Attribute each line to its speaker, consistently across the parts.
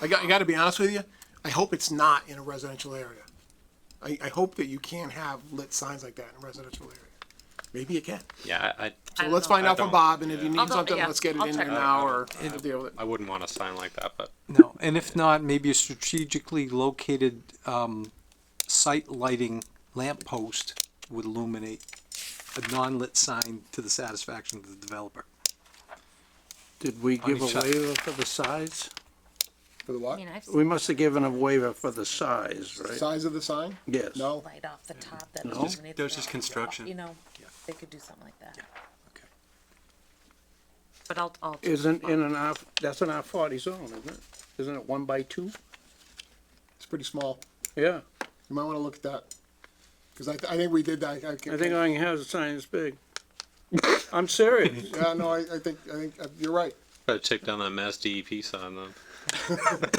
Speaker 1: I got, I gotta be honest with you, I hope it's not in a residential area. I, I hope that you can't have lit signs like that in a residential area. Maybe you can.
Speaker 2: Yeah, I, I-
Speaker 1: So
Speaker 3: don't
Speaker 1: let's
Speaker 3: know.
Speaker 1: find out from
Speaker 2: don't-
Speaker 1: Bob, and if you
Speaker 3: I'll
Speaker 1: need
Speaker 3: go-
Speaker 1: something,
Speaker 3: yeah,
Speaker 1: let's get it
Speaker 3: I'll
Speaker 1: in
Speaker 3: check.
Speaker 1: there now or we'll deal with it.
Speaker 2: I wouldn't want a sign like that, but
Speaker 4: No, and if not, maybe a strategically located um, site lighting lamp post would illuminate a non-lit sign to the satisfaction of the developer.
Speaker 5: Did we give
Speaker 4: each
Speaker 5: a
Speaker 4: side.
Speaker 5: waiver for the size?
Speaker 1: For the
Speaker 3: I
Speaker 1: what?
Speaker 3: mean, I've
Speaker 5: We
Speaker 3: seen
Speaker 5: must have given a waiver for the size, right?
Speaker 1: Size of the sign?
Speaker 5: Yes.
Speaker 1: No?
Speaker 3: light off the top that
Speaker 5: No.
Speaker 3: illuminates.
Speaker 4: There's
Speaker 3: the-
Speaker 4: just construction.
Speaker 3: You know, they could do something like that.
Speaker 4: Okay.
Speaker 3: But I'll, I'll.
Speaker 5: Isn't in an R, that's an R forty zone, isn't it? Isn't it one by two?
Speaker 1: It's pretty small.
Speaker 5: Yeah,
Speaker 1: You might wanna look at that. Cause I, th- I think we did that. I
Speaker 5: I think I can have the sign this big. I'm serious.
Speaker 1: Yeah, no, I, I think, I think, uh, you're right.
Speaker 2: better take down that Mass DEP sign then.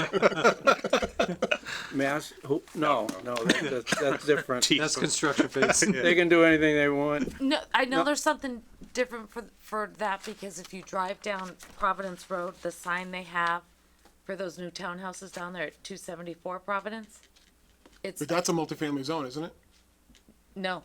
Speaker 5: Mass, who, no, no, that- that's, that's different.
Speaker 4: That's construction phase.
Speaker 5: They can do anything they want.
Speaker 3: No, I know
Speaker 5: No.
Speaker 3: there's something different for for that because if you drive down Providence Road, the sign they have for those new townhouses down there at 274 Providence, it's
Speaker 1: But that's a multifamily zone, isn't it?
Speaker 3: no,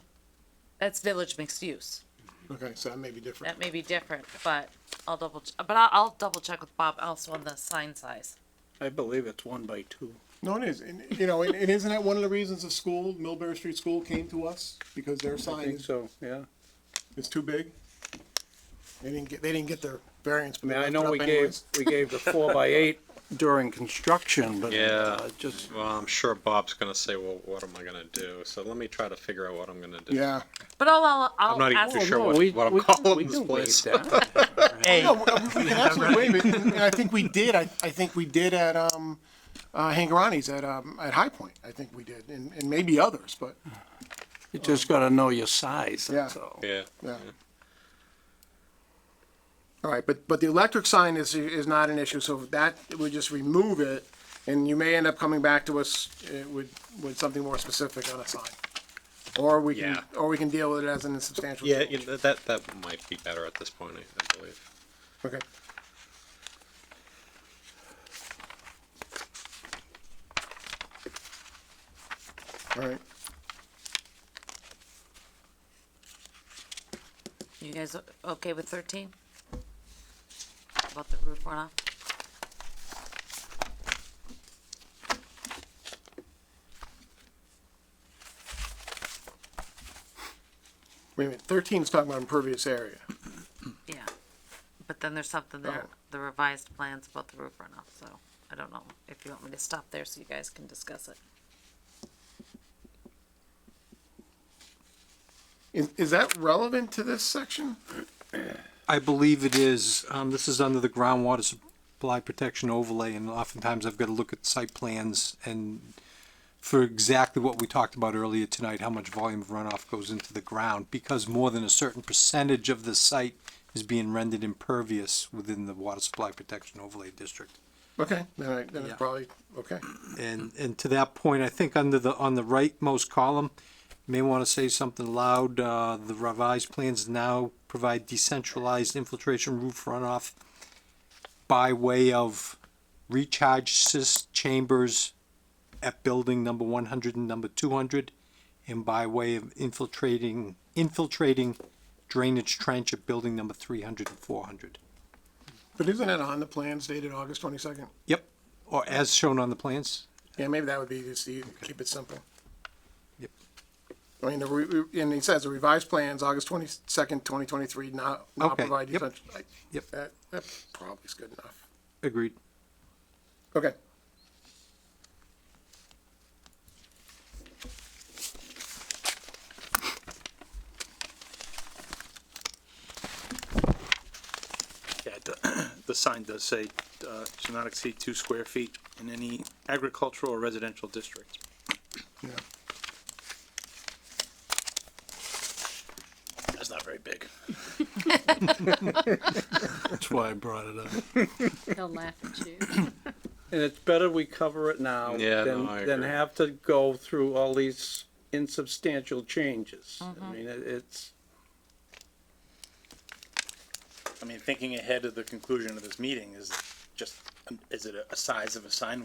Speaker 3: that's village mixed use.
Speaker 1: Okay, so that may be different.
Speaker 3: That may be different, but I'll double. Ch- but I'll, I'll double check with Bob also on the sign size.
Speaker 5: I believe it's one by two.
Speaker 1: No, it is. And, you know, and, and isn't that one of the reasons the school, Millbury Street School came to us? Because their
Speaker 5: I
Speaker 1: sign
Speaker 5: think
Speaker 1: is,
Speaker 5: so, yeah.
Speaker 1: is too big? They didn't get, they didn't get their variance.
Speaker 5: I
Speaker 1: but
Speaker 5: mean,
Speaker 1: they
Speaker 5: I
Speaker 1: left it
Speaker 5: know
Speaker 1: up
Speaker 5: we gave,
Speaker 1: anyways.
Speaker 5: we gave the four by eight during construction, but,
Speaker 2: Yeah.
Speaker 5: uh, just,
Speaker 2: Well, I'm sure Bob's gonna say, well, what am I gonna do? So let me try to figure out what I'm gonna do.
Speaker 1: Yeah.
Speaker 3: But I'll I'll, I'll
Speaker 2: I'm not even
Speaker 3: ask
Speaker 2: too
Speaker 5: Oh,
Speaker 2: sure
Speaker 5: no,
Speaker 2: what,
Speaker 5: we-
Speaker 2: what I'm
Speaker 5: we- we
Speaker 2: calling this
Speaker 5: can waive
Speaker 2: place.
Speaker 5: that.
Speaker 1: No, we we can absolutely waive it. And I think we did, I, I think we did at, um, uh, Hangarani's at, um, at High Point. I think we did, and, and maybe others, but,
Speaker 5: You just gotta know your size, that's
Speaker 1: Yeah.
Speaker 5: all.
Speaker 2: Yeah,
Speaker 1: yeah. All right, but, but the electric sign is, is not an issue, so that, we just remove it, and you may end up coming back to us uh, with, with something more specific on a sign. Or we can,
Speaker 2: Yeah.
Speaker 1: or we can deal with it as an insubstantial
Speaker 2: yeah,
Speaker 1: change.
Speaker 2: you know, that, that might be better at this point, I I believe.
Speaker 1: Okay. All right,
Speaker 3: You guys o- okay with thirteen? About the roof runoff?
Speaker 1: wait a minute, thirteen is talking about impervious area.
Speaker 3: Yeah. But then there's something there,
Speaker 1: Oh.
Speaker 3: the revised plans about the roof runoff, so I don't know if you want me to stop there so you guys can discuss it.
Speaker 1: Is, is that relevant to this section?
Speaker 4: I believe it is, um, this is under the groundwater supply protection overlay, and oftentimes I've gotta look at site plans and for exactly what we talked about earlier tonight, how much volume of runoff goes into the ground, because more than a certain percentage of the site is being rendered impervious within the water supply protection overlay district.
Speaker 1: Okay, then I, then it's
Speaker 4: Yeah.
Speaker 1: probably, okay.
Speaker 4: And, and to that point, I think under the, on the rightmost column, you may want to say something loud, uh, the revised plans now provide decentralized infiltration roof runoff by way of recharge sys chambers at building number one hundred and number two hundred, and by way of infiltrating, infiltrating drainage trench at building number three hundred and four hundred.
Speaker 1: But isn't it on the plans dated August twenty-second?
Speaker 4: Yep, or as shown on the plans.
Speaker 1: Yeah, maybe that would be just, you keep it simple.
Speaker 4: Yep.
Speaker 1: I mean, the, re- re- and he says the revised plans, August twenty-second, twenty twenty-three, not, not
Speaker 4: Okay,
Speaker 1: provide
Speaker 4: yep.
Speaker 1: essential. I-
Speaker 4: Yep.
Speaker 1: That, that probably is good enough.
Speaker 4: Agreed.
Speaker 1: Okay.
Speaker 6: Yeah, the, the sign does say, uh, shall not exceed two square feet in any agricultural or residential district.
Speaker 1: Yeah.
Speaker 6: That's not very big.
Speaker 5: That's why I brought it up.
Speaker 7: He'll laugh at you.
Speaker 5: And it's better we cover it now
Speaker 2: Yeah, no,
Speaker 5: than,
Speaker 2: I
Speaker 5: than
Speaker 2: agree.
Speaker 5: have to go through all these insubstantial changes. I mean, it- it's,
Speaker 6: I mean, thinking ahead of the conclusion of this meeting is just, um, is it a- a size of a sign